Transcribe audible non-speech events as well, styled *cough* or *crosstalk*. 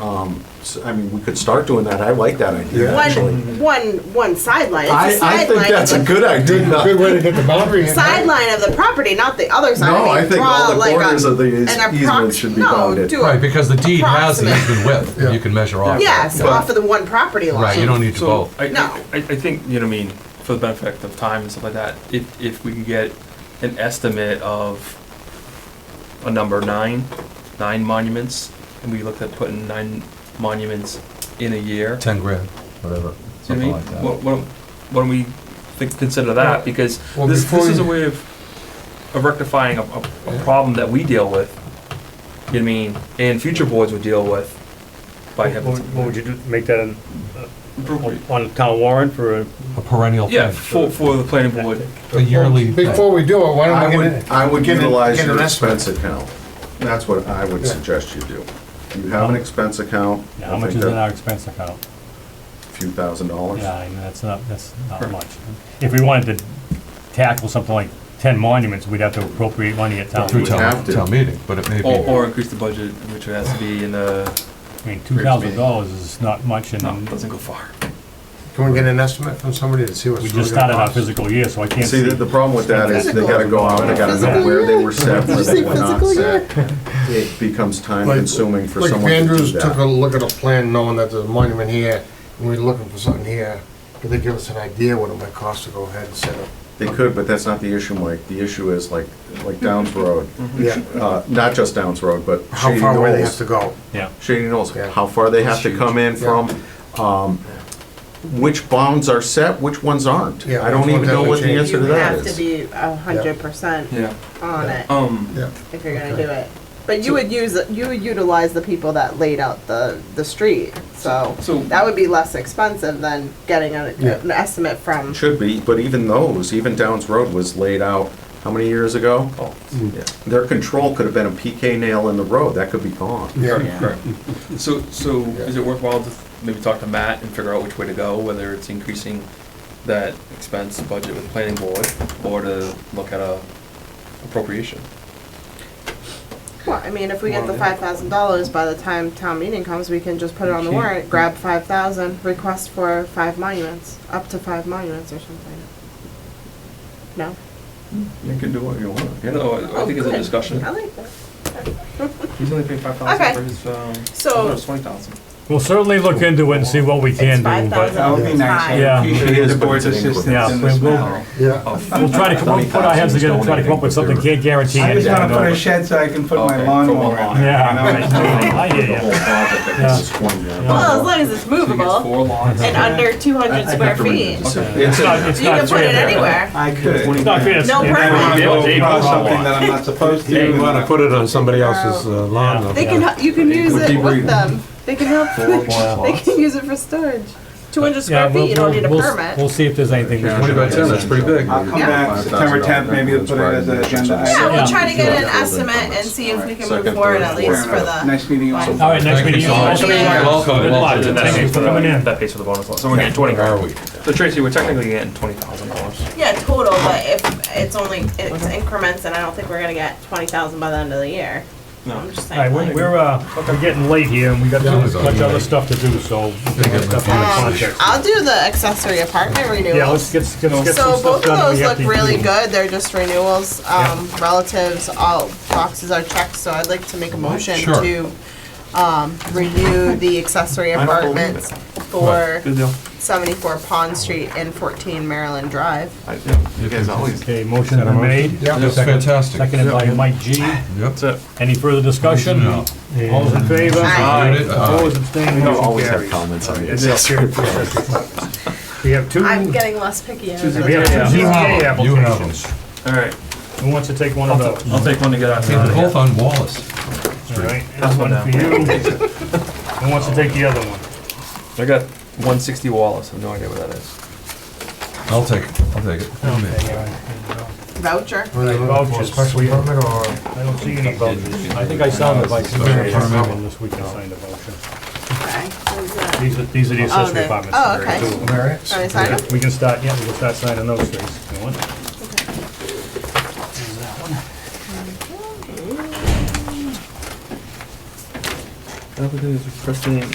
Um, so, I mean, we could start doing that. I like that idea, Yeah. actually. One- one, one sideline. It's I, the I think sideline that's a of the good Good idea. way to get the boundary in. sideline of the property, not the other side. No, mean, I think draw all the like a- corners of the eas- an approx- easement should be no, bounded. do a- Right, because the deed has the Approximate. even width, Yeah. you can measure off. of it. Yes, off of the one property line. Right, you don't need to So, both. I, No. I, I think, you know, I mean, for the benefit of time and stuff like that, if, if we could get an estimate of a number nine, nine monuments, and we looked at putting nine monuments in a year. Ten grand, whatever, You know something like what I mean? that. What- what- When we think, consider that, because Well, this, before this is a you- way of of rectifying a, a, a problem that we deal with, you know what I mean, and future boards would deal with by What having. would- what would you do, make that an- uh, something- on a town warrant for, a- A perennial Yeah, thing, for, for the planning board. a yearly thing. Before we do it, why I don't we would, get I would Get an- utilize get an your estimate. expense account. That's what I would Yeah. suggest you do. You have an expense account. Yeah, I how much think is in that- our expense account? Few thousand dollars. Yeah, I mean, that's not, that's not much. If we wanted to tackle something like ten monuments, we'd have to appropriate money at town. Through we town, have to. town meeting, but it may Or, be, or increase the budget, which has to be in the, I mean, two thousand dollars is not much, no, and doesn't go far. a- can we get an estimate from somebody to see what's we really just started our gonna cost? physical year, so I can't See, see. the, the problem with that is they gotta go out and they gotta know Physical where they year. were set, where Did you they say were not physical set. It becomes time Like- consuming for Like if someone to do Andrews took a that. look at a plan knowing that there's a monument here, and we're looking for something here, could they give us an idea what it might cost to go ahead and set up? They could, but that's not the issue, Mike. The issue is like, like Downs Road, Yeah, uh, not just Downs Road, but how Shady far away they have Knolls. to go. Yeah, Shady Knolls, Yeah. how far they have to come in from, um, which bounds are set, which ones aren't. Yeah, I don't which even ones know have what to the change. answer to You have that to is. be a hundred percent Yeah. on it Oh, Um, Yeah, if you're gonna do it. But you would use, you would utilize the people that laid out the, the street, so So- that would be less expensive than getting an, Yeah. an estimate from. Should be, but even those, even Downs Road was laid out, how many years ago? oh, yeah. Their control could have been a PK nail in the road, that could be gone. yeah, Correct. So, so is it worthwhile to maybe talk to Matt and figure out which way to go, whether it's increasing that expense budget with the planning board or to look at a appropriation? Well, I mean, if we get the Well, yeah. five thousand dollars, by the time town meeting comes, we can just put it on the Okay. warrant, grab five thousand, request for five monuments, up to five monuments or something. No? You can do what you want, yeah. No, I- I think it's Oh, a good. discussion. I like that. *laughs* He's only paying five Okay. thousand for his, um, So- twenty thousand. we'll certainly look into it and see what we It's can five do, but thousand That would be nice. Yeah. Appreciate the board's Yeah. assistance Yeah. in this matter. yeah. we'll try to, come- we'll put our heads together and try to come up with something, can't guarantee I just anything. wanna put a though. shed so I can put Okay, my lawnmower from a in. Yeah. I hear The ya. whole project, I guess, is twenty grand. Well, as long as it's So he gets movable four lots. and under two hundred I- I'd square have to read feet, the decision. It's Okay. in It's not- there. it's you can not put it fair. anywhere. I could. It's not fair. No And I permit. wanna go Yeah, across yeah. something that I'm not supposed to. You want to put it on somebody else's uh, lawn. though. They can, h- you can use would it be with breathable. them, they can help, *laughs* they can use it for storage. Two hundred Yeah, square we'll- feet, you don't need a we'll- We'll permit. see if there's anything. we can Twenty by ten, that's pretty big. I'll come back September 10th, maybe we'll put it as an agenda item. Yeah, Yeah. we'll try to get an Yeah. estimate and see if we can move Second, forward third, at fourth. least for the. Nice meeting you all. All right, next meeting. so much. Welcome, Good luck. welcome. Thank you for coming in. That pays for the bonus lot, so we're getting twenty. Where are we? So Tracy, we're technically getting twenty thousand dollars. Yeah, total, but if it's only, it's increments and I don't think we're gonna get twenty thousand by the end of the year. No. I'm just All right, saying. we're, like- we're, uh, we're getting late here, and we got too much other stuff to do, so. we'll get stuff in the Um, context. I'll do the accessory apartment Yeah, renewals. let's get, let's get some So stuff both of done. those we have look to really do. good, they're just renewals, um, relatives, all boxes are checked, so I'd like to make a motion Sure. to, um, renew the accessory I don't believe apartments for Good deal. seventy-four Pond Street and fourteen Maryland Drive. I- yeah, You guys always. Okay, motion been made, That's fantastic. seconded by Mike G. Yep. That's it. Any further discussion? No. All's in favor? Aye. Opposed, abstaining, I'll motion always have carries. comments on It's it. up here for us. We have two, I'm getting less picky. as we have I go. two You ZBA have them. You have applications. them. All right, Who wants to take one of those? I'll take one to get out. Hey, They're both on Wallace. All right, here's one down. for you. Who wants to take the other one? I got one sixty Wallace, I have no idea what that is. I'll take, it. I'll take it. Come here. Voucher. Were they looking for a Special permit or? I don't see any vouchers. I think I signed the vouchers. This week I signed a voucher. Okay. Who's that? These are, these are the Oh, accessory they- apartments. oh, There are okay. two of them. Mary? Are they signing? We can start, yeah, we can start signing those things. You want? applicant is requesting